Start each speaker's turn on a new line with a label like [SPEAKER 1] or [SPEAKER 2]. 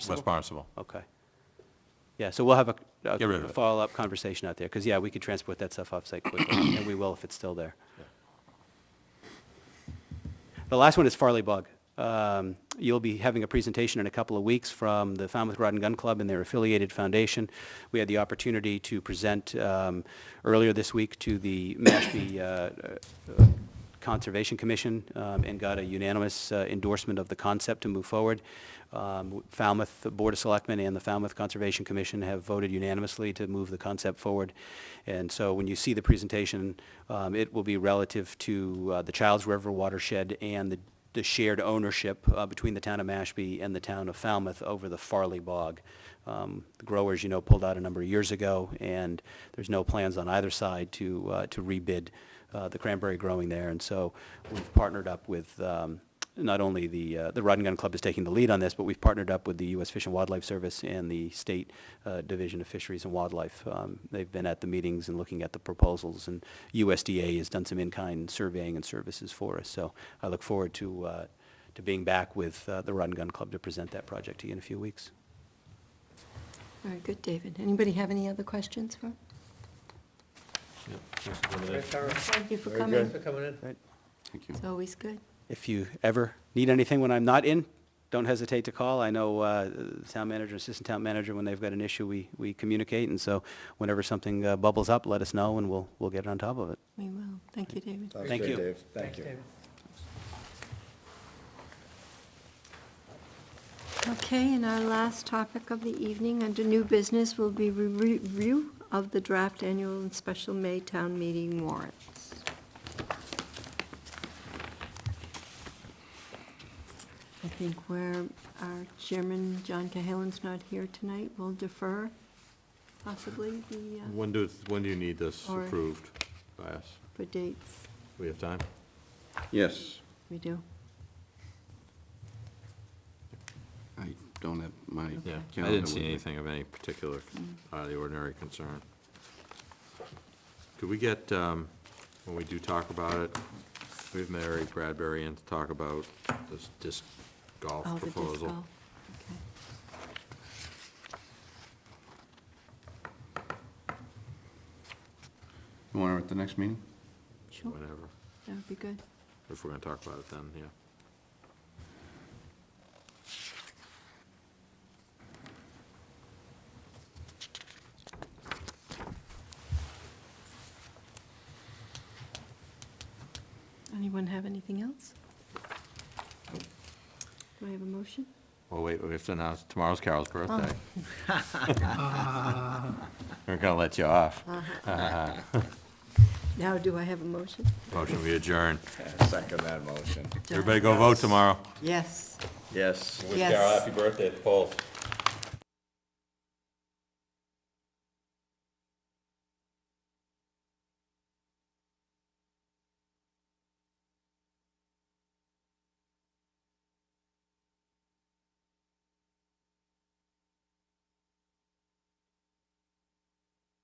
[SPEAKER 1] West Barnstable.
[SPEAKER 2] Okay. Yeah, so we'll have a, a
[SPEAKER 1] Get rid of
[SPEAKER 2] a
[SPEAKER 1] it.
[SPEAKER 2] follow-up conversation out there, because, yeah, we could transport that stuff off-site quickly, and we will if it's still there. The last one is Farley Bug. Um, You'll be having a presentation in a couple of weeks from the Falmouth Rod and Gun Club and their affiliated foundation. We had the opportunity to present um, earlier this week to the Mashpee uh, uh, Conservation Commission um, and got a unanimous uh, endorsement of the concept to move forward. Um, Falmouth the Board of Selectmen and the Falmouth Conservation Commission have voted unanimously to move the concept forward. And so when you see the presentation, um, it will be relative to uh, the Childs River watershed and the the shared ownership uh, between the town of Mashpee and the town of Falmouth over the Farley Bog. Um, The growers, you know, pulled out a number of years ago, and there's no plans on either side to, uh, to rebid uh, the cranberry growing there. And so we've partnered up with, um, not only the, uh, the Rod and Gun Club is taking the lead on this, but we've partnered up with the U.S. Fish and Wildlife Service and the State uh, Division of Fisheries and Wildlife. Um, They've been at the meetings and looking at the proposals, and USDA has done some in-kind surveying and services for us. So I look forward to, uh, to being back with uh, the Rod and Gun Club to present that project to you in a few weeks.
[SPEAKER 3] All right, good, David. Anybody have any other questions for?
[SPEAKER 4] Very thorough.
[SPEAKER 3] Thank you for
[SPEAKER 5] Very
[SPEAKER 3] coming.
[SPEAKER 4] Thanks for coming in.
[SPEAKER 1] Thank you.
[SPEAKER 3] It's always good.
[SPEAKER 2] If you ever need anything when I'm not in, don't hesitate to call. I know uh, the town manager, assistant town manager, when they've got an issue, we, we communicate, and so whenever something uh, bubbles up, let us know, and we'll, we'll get on top of it.
[SPEAKER 3] We will. Thank you, David.
[SPEAKER 5] Sounds
[SPEAKER 2] Thank
[SPEAKER 5] good,
[SPEAKER 2] you.
[SPEAKER 5] Dave. Thank
[SPEAKER 4] Thanks,
[SPEAKER 5] you.
[SPEAKER 4] David.
[SPEAKER 3] Okay, and our last topic of the evening under new business will be re- review of the draft annual and special May town meeting warrants. I think where our chairman, John Cahalan's not here tonight, we'll defer possibly the, uh,
[SPEAKER 6] When do, when do you need this
[SPEAKER 3] Or-
[SPEAKER 6] approved by us?
[SPEAKER 3] for dates.
[SPEAKER 6] We have time?
[SPEAKER 7] Yes,
[SPEAKER 3] We do.
[SPEAKER 7] I don't have my
[SPEAKER 6] Yeah,
[SPEAKER 7] calendar.
[SPEAKER 6] I didn't see
[SPEAKER 7] with me.
[SPEAKER 6] anything of any particular,
[SPEAKER 3] Mm.
[SPEAKER 6] out of the ordinary concern. Could we get, um, when we do talk about it, we have Mary Bradbury in to talk about this disc golf
[SPEAKER 3] Oh, the disc
[SPEAKER 6] proposal?
[SPEAKER 3] golf. Okay.
[SPEAKER 7] You want it at the next meeting?
[SPEAKER 3] Sure,
[SPEAKER 6] Whenever,
[SPEAKER 3] that would be good.
[SPEAKER 6] if we're gonna talk about it then, yeah.
[SPEAKER 3] Anyone have anything else? Do I have a motion?
[SPEAKER 6] Well, Oh, wait, we have to announce, tomorrow's Carol's birthday.
[SPEAKER 3] Oh.
[SPEAKER 6] We're gonna let you off.
[SPEAKER 3] Uh-huh. Now, do I have a motion?
[SPEAKER 6] Motion we adjourn.
[SPEAKER 5] I Second that motion.
[SPEAKER 3] John?
[SPEAKER 6] Everybody go vote tomorrow.
[SPEAKER 3] Yes.
[SPEAKER 5] Yes.
[SPEAKER 3] Yes.
[SPEAKER 6] birthday at the polls.